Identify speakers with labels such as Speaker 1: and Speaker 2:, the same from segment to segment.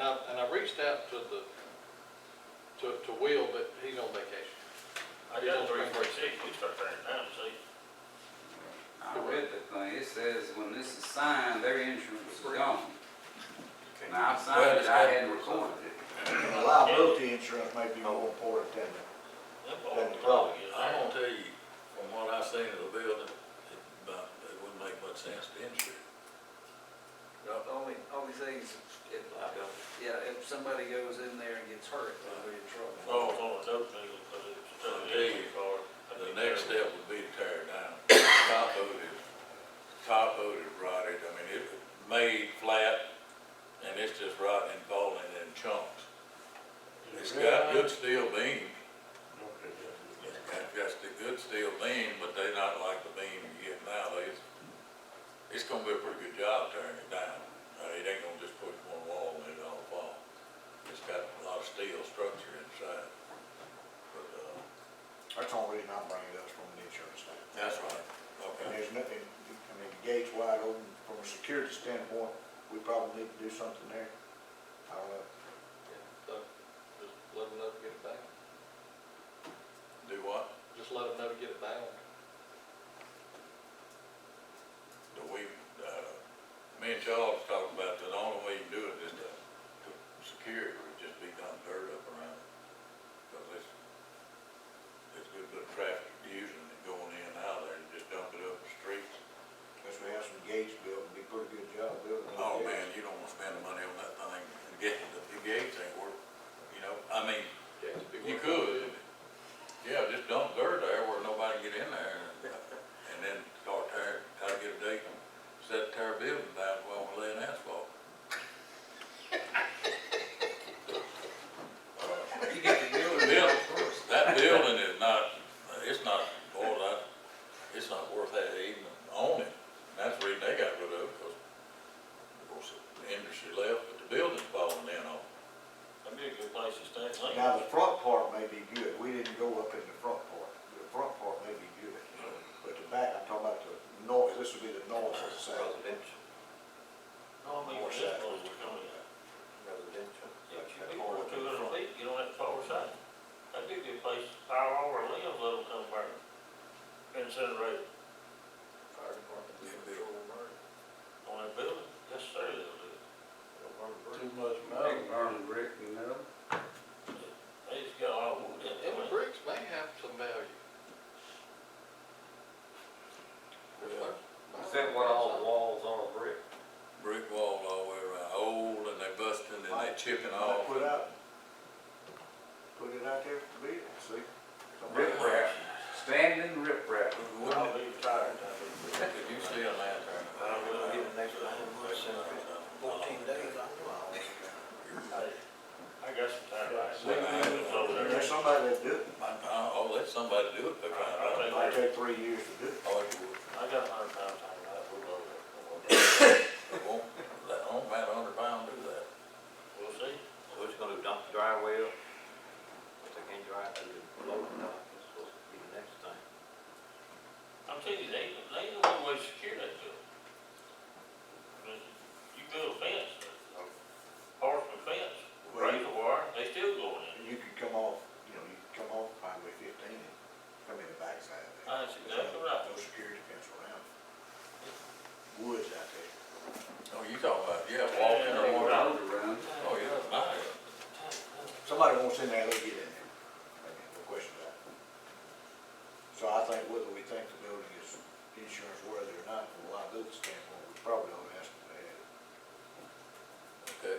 Speaker 1: I, and I reached out to the, to, to Will, but he's on vacation.
Speaker 2: I got three forty-six, you start turning it down, see?
Speaker 3: I read the thing, it says when this is signed, their insurance is gone. Now, I signed it, I hadn't recorded it.
Speaker 4: And the liability insurance may be more important than the,
Speaker 2: That ball,
Speaker 4: That's
Speaker 2: dog
Speaker 4: right.
Speaker 2: is
Speaker 5: I'm
Speaker 2: there.
Speaker 5: gonna tell you, from what I've seen of the building, it, about, it wouldn't make much sense to insure. it.
Speaker 6: Only, only thing is, if, yeah, if somebody goes in there and gets hurt, they'll be in trouble.
Speaker 2: Oh, it's on the dope deal, cause it's still in the car. That'd
Speaker 5: The
Speaker 2: be
Speaker 5: next
Speaker 2: terrible.
Speaker 5: step would be to tear it down, top coat it, top coat it, rotted, I mean, it made flat, and it's just rotting and falling in chunks. It's got good steel beam, it's got just a good steel beam, but they not like the beam you get nowadays. It's gonna be a pretty good job tearing it down, Uh, it ain't gonna just put one wall and it all fall. It's got a lot of steel structure inside, but, uh,
Speaker 4: that's the only reason I'm bringing it up from the insurance standpoint.
Speaker 5: that's right,
Speaker 4: And
Speaker 5: okay.
Speaker 4: there's nothing, I mean, the gate's wide open, from a security standpoint, we probably need to do something there. I don't know,
Speaker 1: So, just let them know to get it bound.
Speaker 5: Do what?
Speaker 1: Just let them know to get it bound.
Speaker 5: that we, uh, me and Charles talked about that the only way you can do it is to, to secure it, would just be done dirt up around it. Cause it's, it's a good bit of traffic using it going in and out of there, and just dump it up the street.
Speaker 4: unless we have some gates built, it'd be a pretty good job building. those
Speaker 5: Oh,
Speaker 4: gates.
Speaker 5: man, you don't wanna spend the money on that thing, and get, the the gates ain't worth, you know, I mean, you could. Yeah, just dump dirt there where nobody can get in there, and, and then start tear, try to get a date, and set tear a building down, while we're laying asphalt.
Speaker 6: You get the building
Speaker 5: Yeah.
Speaker 6: down first.
Speaker 5: Uh, That building is not, it's not, boy, that, it's not worth that even owning. And That's the reason they got rid of it, because, of course, the industry left, but the building's falling in on. it.
Speaker 2: That'd be a good place to stay, clean.
Speaker 4: Now, the front part may be good, we didn't go up in the front part, the front part may be good, but the back, I'm talking about the north, this would be the north side.
Speaker 7: Residential,
Speaker 2: No, I mean,
Speaker 7: More
Speaker 2: that's
Speaker 7: side.
Speaker 2: close to coming out.
Speaker 7: residential.
Speaker 2: Yeah, but you'd be more than two hundred feet, you don't have to forward side. That'd be a good place, fire all our limbs, let them come burn. Incinerated
Speaker 7: Fire department,
Speaker 5: Yeah, they-
Speaker 7: control burn,
Speaker 2: on that building, yes, sir, they'll do it.
Speaker 7: they'll burn the brush.
Speaker 8: Too much metal.
Speaker 3: Big burn brick and metal.
Speaker 2: They just got all wood in
Speaker 1: And the
Speaker 2: there.
Speaker 1: bricks may have some value.
Speaker 7: Is that what all the walls are brick?
Speaker 5: Brick wall all the way around, old, and they busting, and they chipping
Speaker 4: I
Speaker 5: off.
Speaker 4: Put out, put it out there for bid, see?
Speaker 3: Rip rap, standing rip rap.
Speaker 2: I'll
Speaker 5: Wouldn't it,
Speaker 2: be retired.
Speaker 5: if you see a lantern.
Speaker 7: I will get the next one, fourteen days, I don't know.
Speaker 2: Hey, I got some time. right?
Speaker 5: Yeah, I-
Speaker 2: Over there.
Speaker 4: There's somebody that do it,
Speaker 5: Uh, oh, let somebody do it, they're trying to.
Speaker 4: might take three years to do it.
Speaker 5: Oh, it would.
Speaker 2: I got a hundred pound tank, I put it over there.
Speaker 5: It won't, that, won't matter, hundred pound do that.
Speaker 2: We'll see.
Speaker 7: We're just gonna dump the dry well, if they can't dry it, they'll blow it out, that's supposed to be the next thing.
Speaker 2: I'm telling you, they, they know one way to secure that building. But You build a fence, horseman fence, razor wire, they still going in.
Speaker 4: And you could come off, you know, you could come off Highway fifteen and come in the backside of there.
Speaker 2: That's exactly right.
Speaker 4: No security fence around it. Woods out there.
Speaker 5: Oh, you talking about, yeah, walking or
Speaker 3: Big
Speaker 5: whatever.
Speaker 3: road around.
Speaker 5: Oh, yeah, it's nice.
Speaker 4: Somebody wants in there, they'll get in there. I mean, No question about it. So I think whether we think the building is insurance worthy or not, from a liability standpoint, we probably ought to ask them to add it.
Speaker 5: Okay,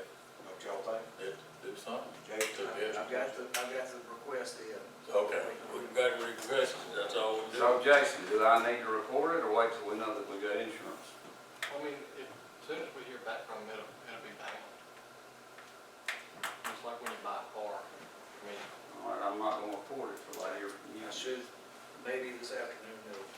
Speaker 4: Don't y'all think?
Speaker 5: did, did something.
Speaker 4: Jason?
Speaker 6: I've got the, I've got the request in.
Speaker 5: Okay, we got requests, that's all we do.
Speaker 3: So Jason, do I need to record it or wait till we know that we got insurance?
Speaker 1: I mean, if, as soon as we hear back from them, it'll, it'll be bound. It's like when you buy a car, I mean,
Speaker 3: All right, I'm not gonna record it for later.
Speaker 6: I should, maybe this afternoon, they'll